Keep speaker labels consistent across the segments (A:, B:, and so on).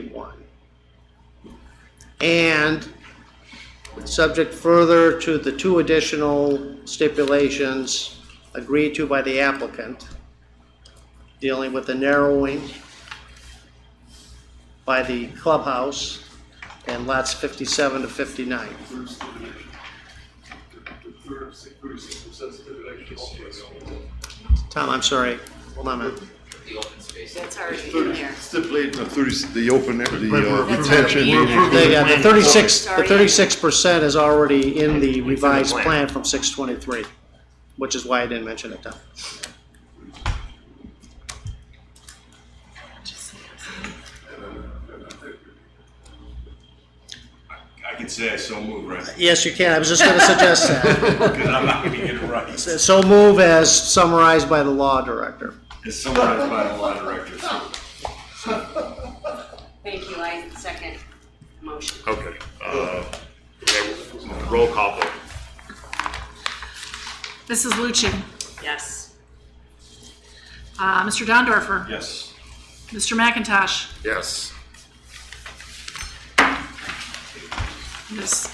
A: one. And subject further to the two additional stipulations agreed to by the applicant, dealing with the narrowing by the clubhouse and lots fifty-seven to fifty-nine.
B: third stipulation. The third thirty-six percent stipulation.
A: Tom, I'm sorry, hold on a minute.
C: the open space.
D: That's already in there.
E: Stipulate the thirty, the open, air- the uh,
B: We're-
E: retention.
D: we're-
E: area.
A: They got the thirty-six, the
D: Sorry.
A: thirty-six percent is already in the revised
F: plan.
A: plan from six twenty-three, which is why I didn't mention it, Tom.
G: I can say I so move, right?
A: Yes, you can, I was just gonna suggest that.
G: Because I'm not gonna get it right.
A: So move as summarized by the law director.
G: It's summarized by the law director. so-
D: Thank you, I second the motion.
F: Okay, uh, okay, roll call vote.
H: Mrs. Lucci.
D: Yes.
H: Uh, Mr. Dondorfer.
G: Yes.
H: Mr. McIntosh.
E: Yes.
H: It is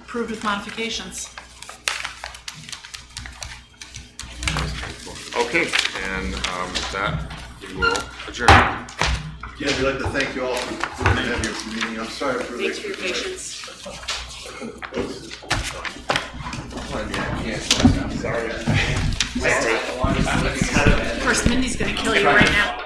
H: approved with modifications.
F: Okay, and, um, with that, we will adjourn.
E: Again, we'd like to thank you all for for being here for the meeting. I'm sorry for the.
D: Thanks for your patience.
H: Of course, Mindy's gonna kill you right now.